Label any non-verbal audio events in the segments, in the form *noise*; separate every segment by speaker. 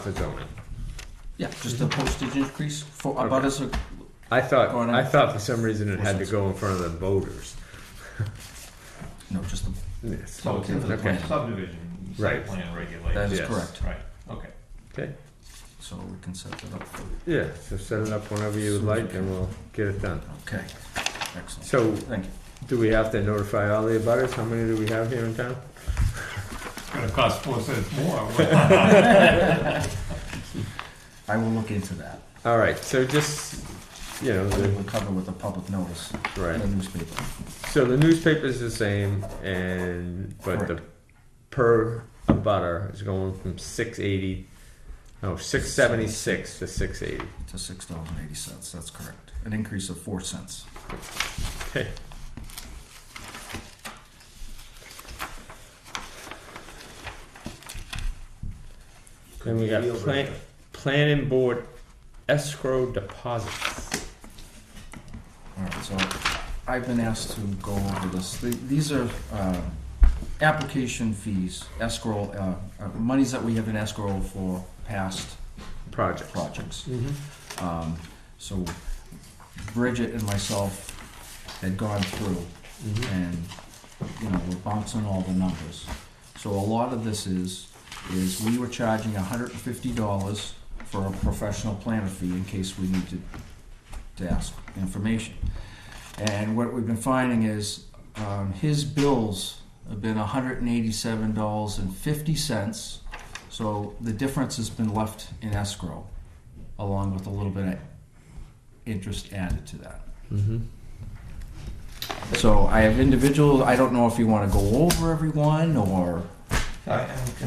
Speaker 1: for zoning.
Speaker 2: Yeah, just the postage increase for abutters are,
Speaker 1: I thought,
Speaker 2: Going
Speaker 1: I
Speaker 2: in.
Speaker 1: thought for some reason it had to go in front of the voters.
Speaker 2: no, just the,
Speaker 1: Yes.
Speaker 3: So Oh, it's in the
Speaker 1: Okay.
Speaker 3: subdivision,
Speaker 1: Right.
Speaker 3: site plan
Speaker 2: that
Speaker 3: regulations,
Speaker 2: is
Speaker 1: Yes.
Speaker 2: correct.
Speaker 3: right, okay.
Speaker 1: Okay,
Speaker 2: So we can set that up for,
Speaker 1: yeah, so set it up whenever you would like and we'll get it done.
Speaker 2: okay, excellent.
Speaker 1: So
Speaker 2: Thank you.
Speaker 1: do we have to notify all the abutters? How many do we have here in town?
Speaker 3: It's gonna cost four cents *laughs* more.
Speaker 2: I will look into that.
Speaker 1: All right, so just, you know,
Speaker 2: We'll
Speaker 1: the,
Speaker 2: cover with a public notice in the
Speaker 1: right.
Speaker 2: newspaper.
Speaker 1: So the newspaper's the same and, but the per abutter is going from six eighty, no, six seventy-six to six eighty.
Speaker 2: to six dollars and eighty cents, that's correct. An increase of four cents.
Speaker 1: Okay. Then we got plan, planning board escrow deposits.
Speaker 2: Alright, so I've been asked to go over this. The- These are, uh, application fees, escrow, uh, uh, monies that we have in escrow for past
Speaker 1: Project.
Speaker 2: projects.
Speaker 1: Mm-hmm.
Speaker 2: Um, so Bridget and myself had gone through and, you know, we're bouncing all the numbers. So a lot of this is, is we were charging hundred and fifty dollars for a professional planner fee in case we needed to ask information. And what we've been finding is, um, his bills have been hundred and eighty-seven dollars and fifty cents. So the difference has been left in escrow, along with a little bit of interest added to that.
Speaker 1: Mm-hmm.
Speaker 2: So I have individuals, I don't know if you want to go over everyone or.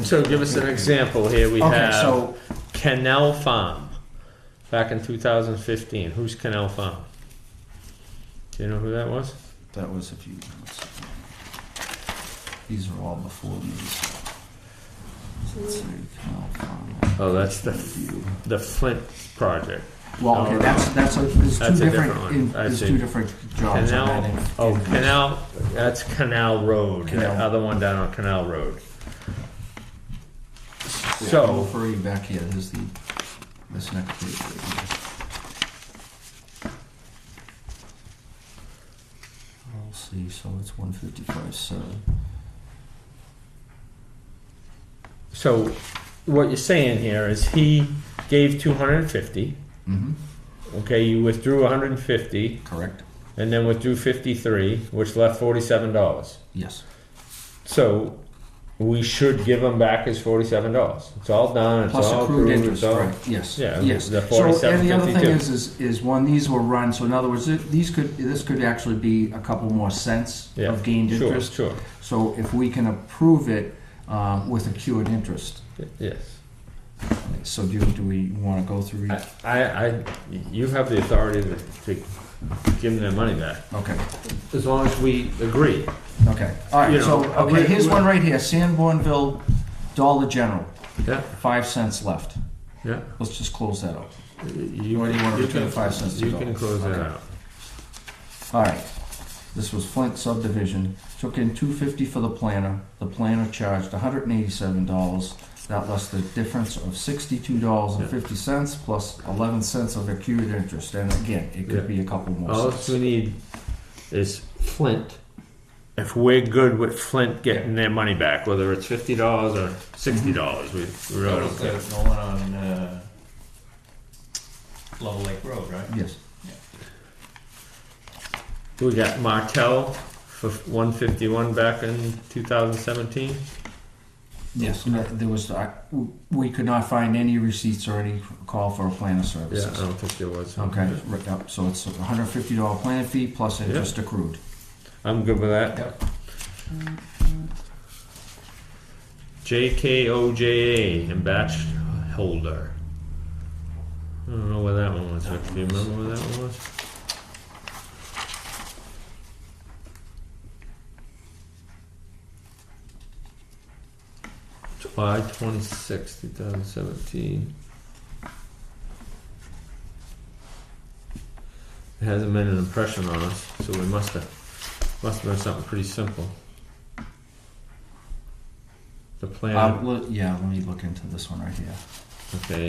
Speaker 1: So give us an example here. We
Speaker 2: Okay,
Speaker 1: have
Speaker 2: so,
Speaker 1: Canal Farm back in 2015. Who's Canal Farm? Do you know who that was?
Speaker 2: that was a few. let's see. These are all before me. so- Let's see, Canal Farm.
Speaker 1: Oh, that's the the Flint project.
Speaker 2: Well, okay, that's, that's, a- there's
Speaker 1: That's a
Speaker 2: two
Speaker 1: different
Speaker 2: different,
Speaker 1: one.
Speaker 2: in-
Speaker 1: I
Speaker 2: there's
Speaker 1: see.
Speaker 2: two different jobs. on
Speaker 1: Canal,
Speaker 2: that in-
Speaker 1: oh,
Speaker 2: in-
Speaker 1: Canal, that's Canal Road, the
Speaker 2: Canal.
Speaker 1: other one down on Canal Road.
Speaker 2: Yeah, I'll
Speaker 1: So,
Speaker 2: refer you back here, here's the, this next page. right here. Let's see, so it's one fifty-five, seven.
Speaker 1: so what you're saying here is he gave two hundred and fifty,
Speaker 2: Mm-hmm,
Speaker 1: okay, you withdrew hundred and fifty,
Speaker 2: correct,
Speaker 1: and then withdrew fifty-three, which left forty-seven dollars.
Speaker 2: yes.
Speaker 1: So, we should give him back his forty-seven dollars. It's all done, it's
Speaker 2: Plus
Speaker 1: all
Speaker 2: accrued
Speaker 1: approved,
Speaker 2: interest,
Speaker 1: it's all.
Speaker 2: right, yes,
Speaker 1: Yeah,
Speaker 2: yes.
Speaker 1: the
Speaker 2: So, and the other thing
Speaker 1: 47.52.
Speaker 2: is, is, is when these were run, so in other words, th- these could, this could actually be a couple more cents
Speaker 1: Yeah,
Speaker 2: of gained
Speaker 1: Sure,
Speaker 2: interest.
Speaker 1: sure,
Speaker 2: So if we can approve it, um, with accrued interest,
Speaker 1: yes.
Speaker 2: so do, do we wanna go through? each-
Speaker 1: I, I, you have the authority to, to give them their money back.
Speaker 2: Okay.
Speaker 1: As long as we agree.
Speaker 2: Okay, all right,
Speaker 1: You know,
Speaker 2: so,
Speaker 1: uh,
Speaker 2: okay,
Speaker 1: we're-
Speaker 2: here's
Speaker 1: we're-
Speaker 2: one right here, Sanbornville Dollar General,
Speaker 1: Yeah,
Speaker 2: five cents left.
Speaker 1: yeah.
Speaker 2: Let's just close that up.
Speaker 1: You,
Speaker 2: What do you want,
Speaker 1: you
Speaker 2: between
Speaker 1: can-
Speaker 2: five cents to
Speaker 1: You
Speaker 2: dollars?
Speaker 1: can close that
Speaker 2: Okay.
Speaker 1: out.
Speaker 2: All right, this was Flint subdivision, took in two fifty for the planner, the planner charged hundred and eighty-seven dollars. That left the difference of sixty-two dollars and fifty cents plus eleven cents of accrued interest, and again, it could be a couple
Speaker 1: All
Speaker 2: more
Speaker 1: we
Speaker 2: cents.
Speaker 1: need is Flint. If we're good with Flint getting their money back, whether it's fifty dollars or sixty
Speaker 2: Mm-hmm.
Speaker 1: dollars, we we really
Speaker 3: Notice
Speaker 1: don't care.
Speaker 3: there's no one on, uh, Level Lake Road, right?
Speaker 2: Yes,
Speaker 1: We got Martell for one fifty-one back in two thousand seventeen.
Speaker 2: yes, and there was, I, we could not find any receipts or any call for a planner
Speaker 1: Yeah, I
Speaker 2: services.
Speaker 1: don't think there was.
Speaker 2: Okay, Um, right, yep, so it's a hundred and fifty dollar planning fee plus interest accrued.
Speaker 1: I'm good with that.
Speaker 3: Yep.
Speaker 1: JKOJA and batch holder. I don't know where that one was. Rick. Do you remember where that one was? July twenty sixth, 2017. It hasn't made an impression on us, so we must have must have been something pretty simple. The plan.
Speaker 2: Uh, le- yeah, let me look into this one right here.
Speaker 1: Okay,